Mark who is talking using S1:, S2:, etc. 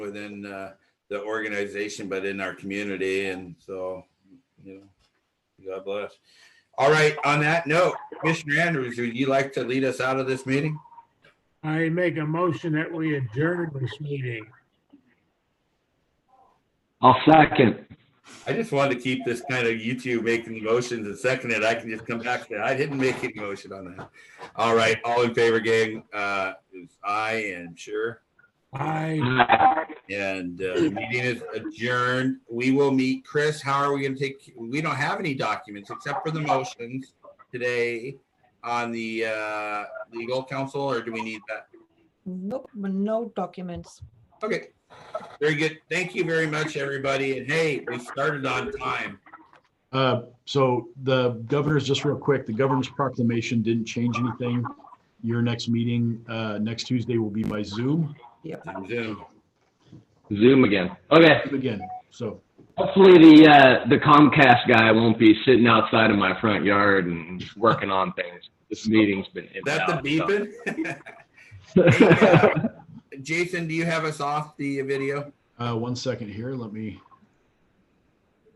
S1: within uh, the organization, but in our community. And so, you know, God bless. All right, on that note, Commissioner Andrews, would you like to lead us out of this meeting?
S2: I make a motion that we adjourn this meeting.
S3: I'll second.
S1: I just wanted to keep this kind of you two making motions and second it. I can just come back to that. I didn't make any motion on that. All right, all in favor, gang, uh, is aye and sure.
S2: I,
S3: Aye.
S1: And uh, the meeting is adjourned. We will meet. Chris, how are we gonna take, we don't have any documents except for the motions today on the uh, legal counsel, or do we need that?
S4: Nope, no documents.
S1: Okay, very good. Thank you very much, everybody. And hey, we started on time.
S5: Uh, So the governor's, just real quick, the governor's proclamation didn't change anything. Your next meeting, uh, next Tuesday will be by Zoom
S1: Zoom.
S3: Zoom again. Okay.
S5: again, so.
S3: Hopefully the uh, the Comcast guy won't be sitting outside of my front yard and working on things. This meeting's been.
S1: Is that the beeping?
S3: beeping?
S1: Jason, do you have us off the video?
S5: Uh, one second here, let me,